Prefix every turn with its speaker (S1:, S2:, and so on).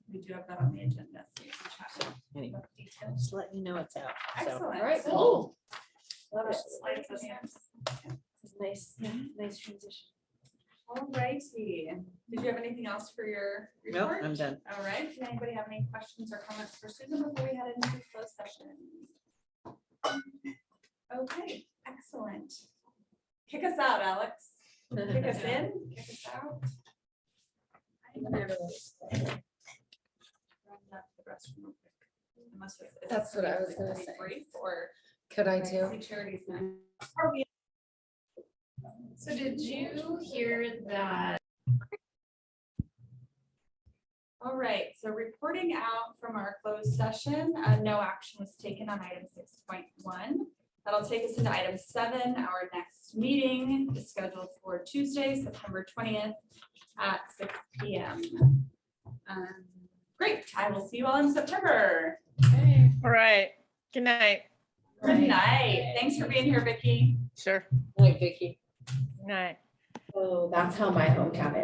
S1: do have that on the agenda. so you can check out
S2: Anyway,
S1: what details.
S2: just letting you know it's out. So,
S1: Excellent.
S3: Alright,
S1: So-
S3: cool. Love it.
S1: Slides in here.
S3: It's Nice, nice transition.
S1: Alrighty, did you have anything else for your
S2: no,
S1: report?
S2: I'm done.
S1: All right, did anybody have any questions or comments for Susan before we head into closed session? Okay, excellent. Kick us out, Alex. Kick us in, kick us out. I think we're really- Run that to the restroom real quick. Unless it's- it's
S3: That's what I was gonna
S1: pretty
S3: say.
S1: brief Or
S3: Could I
S1: do charities now. Are we-
S4: So did you hear that?
S1: All right, so reporting out from our closed session, uh, no action was taken on item six point one. That'll take us into item seven. Our next meeting is scheduled for Tuesday, September twentieth at six P M. Um, Great, I will see you all in September.
S5: All right. Good night.
S1: Good night. Thanks for being here, Vicky.
S5: Sure.
S2: Wait, Vicky.
S5: Good night.
S3: Oh, that's how my hometown is.